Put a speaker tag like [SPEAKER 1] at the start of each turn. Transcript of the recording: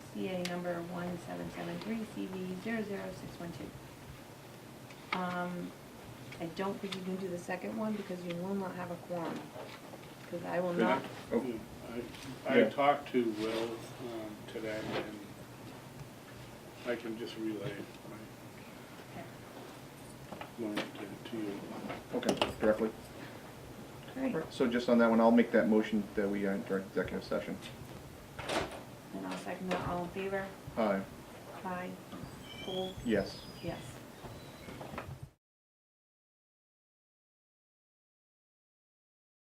[SPEAKER 1] CA number one seven seven three CV zero zero six one two. Um, I don't think you can do the second one because you will not have a quorum, because I will
[SPEAKER 2] Did I-
[SPEAKER 1] not,
[SPEAKER 2] oh,
[SPEAKER 3] I, I
[SPEAKER 2] Yeah.
[SPEAKER 3] talked to Will um, today, and I can just relay my line to, to you.
[SPEAKER 2] Okay, directly.
[SPEAKER 1] right,
[SPEAKER 2] Alright, So just on that one, I'll make that motion that we uh, direct executive session.
[SPEAKER 1] and I'll second that, all in favor?
[SPEAKER 2] Aye,
[SPEAKER 1] Aye. Full,
[SPEAKER 2] Uh, yes.
[SPEAKER 1] yes.